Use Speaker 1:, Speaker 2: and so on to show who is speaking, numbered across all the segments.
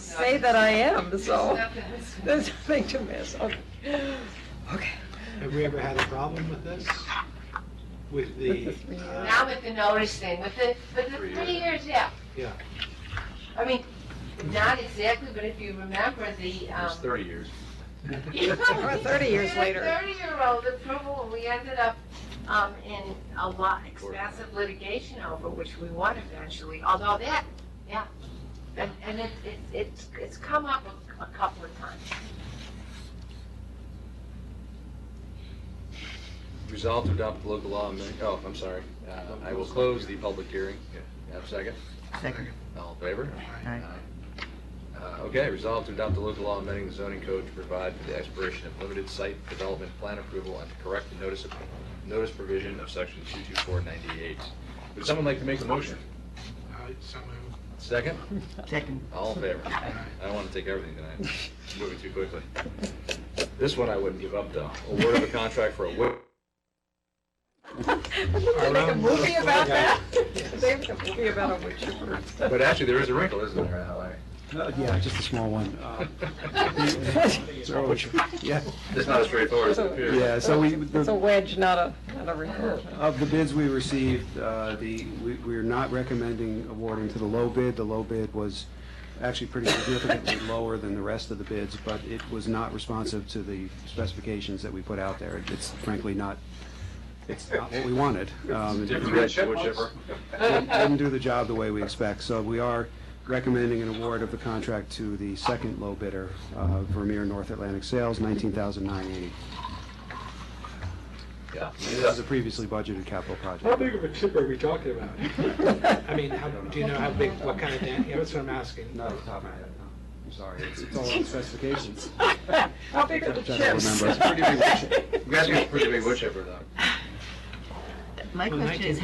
Speaker 1: say that I am, so there's nothing to miss. Okay. Okay.
Speaker 2: Have we ever had a problem with this? With the,
Speaker 1: With the three
Speaker 2: uh,
Speaker 3: Now with the notice thing, with the, with the three years, yeah.
Speaker 2: Yeah.
Speaker 3: I mean, not exactly, but if you remember the,
Speaker 4: It was
Speaker 3: um.
Speaker 4: 30 years.
Speaker 1: Or 30 years later.
Speaker 3: Thirty-year-old approval, we ended up, um, in a lot, expensive litigation over, which we won eventually, although that, yeah. And, and it, it, it's, it's come up a, a couple of times.
Speaker 5: Resolved to adopt local law, amend- oh, I'm sorry. Uh, I will close the public hearing. Have a second?
Speaker 6: Second.
Speaker 5: All in favor?
Speaker 6: Aye.
Speaker 5: Uh, Okay, resolved to adopt the local law amending the zoning code to provide for the expiration of limited site development plan approval and to correct the notice of, notice provision of section 22498. Would someone like to make the motion?
Speaker 2: uh, someone-
Speaker 5: Second?
Speaker 6: Second.
Speaker 5: All in favor? I don't want to take everything tonight. It's Moving too quickly. This one I wouldn't give up, though. Award of a contract for a wi-
Speaker 1: Wouldn't they make a
Speaker 2: Around
Speaker 1: movie
Speaker 2: the
Speaker 1: about
Speaker 2: flag.
Speaker 1: that? They make a movie about a witch hunt.
Speaker 5: But actually, there is a wrinkle, isn't there, Larry?
Speaker 7: Uh, Yeah, just a small one. Uh, so- Yeah,
Speaker 5: It's not as straightforward as it appears.
Speaker 7: yeah, so we,
Speaker 1: It's a
Speaker 7: the-
Speaker 1: wedge, not a, not a record.
Speaker 7: of the bids we received, uh, the, we we are not recommending awarding to the low bid. The low bid was actually pretty significantly lower than the rest of the bids, but it was not responsive to the specifications that we put out there. It's frankly not, it's not what we wanted. Um, it-
Speaker 5: Different red wood chipper.
Speaker 7: didn't didn't do the job the way we expect. So we are recommending an award of the contract to the second low bidder, uh, Vermeer North Atlantic Sales, $19,980.
Speaker 5: Yeah.
Speaker 7: This is a previously budgeted capital project.
Speaker 2: How big of a chip are we talking about? I mean, how, do you know how big, what kind of dam, yeah, that's what I'm asking.
Speaker 7: Not off the top of my head, no. I'm sorry. It's- It's all on specifications.
Speaker 1: How big are the
Speaker 7: Which I don't
Speaker 1: chips?
Speaker 7: remember. It's a pretty
Speaker 5: You guys got a pretty big wood chipper, though.
Speaker 6: My
Speaker 2: Well,
Speaker 6: question is,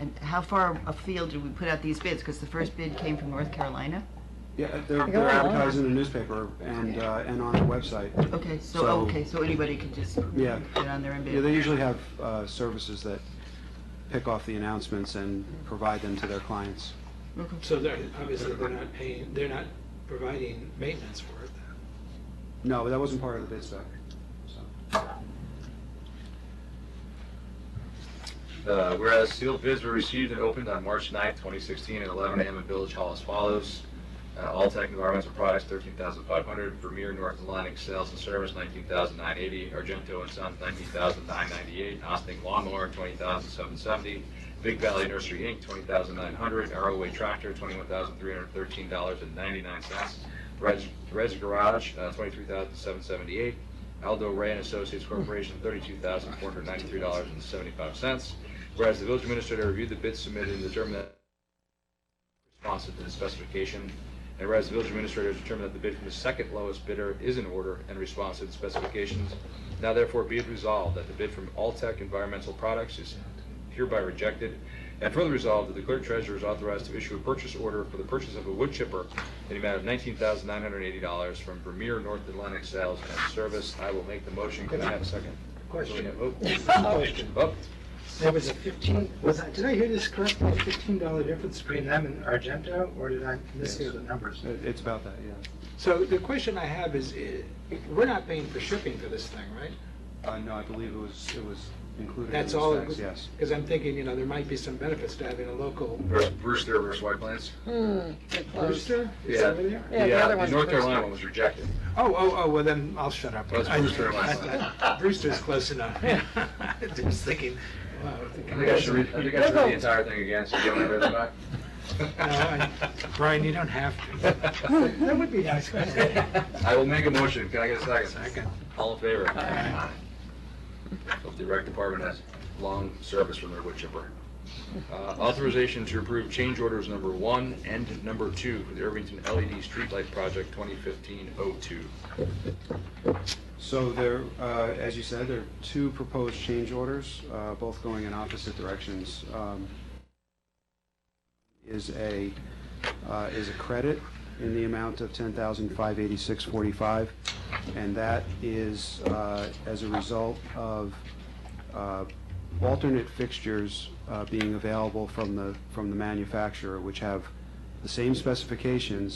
Speaker 6: and how far afield did we put out these bids? Because the first bid came from North Carolina.
Speaker 7: Yeah, they're
Speaker 1: Go
Speaker 7: they're
Speaker 1: on.
Speaker 7: advertising in the newspaper and uh, and on the website.
Speaker 6: Okay, so,
Speaker 7: So-
Speaker 6: okay, so anybody can just
Speaker 7: Yeah.
Speaker 6: get on there and bid.
Speaker 7: Yeah, they usually have uh, services that pick off the announcements and provide them to their clients.
Speaker 6: Okay.
Speaker 2: So they're, obviously, they're not paying, they're not providing maintenance for it.
Speaker 7: No, but that wasn't part of the bid spec. so.
Speaker 5: Uh, Whereas sealed bids were received and opened on March 9th, 2016, at 11 a.m. at Village Hall as follows. Uh, All Tech Environmental Products, 13500 Vermeer North Atlantic Sales and Service, 19980 Argento and Sons, 19998 Austin Lawnmower, 20770 Big Valley Nursery, Inc., 20900 Arrowway Tractor, $21,313.99. Reg Reg Garage, uh, 23778 Aldo Ray and Associates Corporation, $32,493.75. Whereas the village administrator reviewed the bids submitted and determined that responsive to the specification. And whereas the village administrator has determined that the bid from the second lowest bidder is in order and responsive to the specifications, now therefore be it resolved that the bid from Alltech Environmental Products is hereby rejected. And further resolved that the clerk treasurer is authorized to issue a purchase order for the purchase of a wood chipper in the amount of $19,980 from Vermeer North Atlantic Sales and Service. I will make the motion. Can I have a second?
Speaker 2: Question.
Speaker 5: Oh,
Speaker 2: Question.
Speaker 5: oh,
Speaker 2: There was a fifteen, was, I- did I hear this correctly, fifteen dollar difference between them and Argento, or did I mishear the numbers?
Speaker 7: It- It's about that, yeah.
Speaker 2: So the question I have is, eh, we're not paying for shipping for this thing, right?
Speaker 7: Uh, no, I believe it was, it was included in
Speaker 2: That's
Speaker 7: the
Speaker 2: all,
Speaker 7: specs, yes.
Speaker 2: because I'm thinking, you know, there might be some benefits to having a local
Speaker 5: Bruce- Brewster versus White Plains.
Speaker 1: Hmm, they're closed.
Speaker 2: rooster, is
Speaker 5: Yeah.
Speaker 2: that over there?
Speaker 1: Yeah, the other one's
Speaker 5: North
Speaker 1: Brewster.
Speaker 5: Carolina one was rejected.
Speaker 2: Oh, oh, oh, well then, I'll shut up.
Speaker 5: Well, it's Brewster last
Speaker 2: I- Brewster's close enough. I was thinking, wow.
Speaker 5: I think I should read, I think I should read the entire thing again, so you get my rhythm back.
Speaker 2: No, I- Uh, Brian, you don't have to. That would be nice.
Speaker 5: I will make a motion, can I get a second?
Speaker 2: Second.
Speaker 5: All in favor? Aye. Hope the rec department has long service from their wood chipper. Uh, Authorization to approve change orders number one and number two for the Irvington LED Streetlight Project 2015-02.
Speaker 7: So there, uh, as you said, there are two proposed change orders, uh, both going in opposite directions. Um, Is a, uh, is a credit in the amount of ten thousand five eighty-six forty-five, and that is uh, as a result of uh, alternate fixtures uh, being available from the, from the manufacturer, which have the same specifications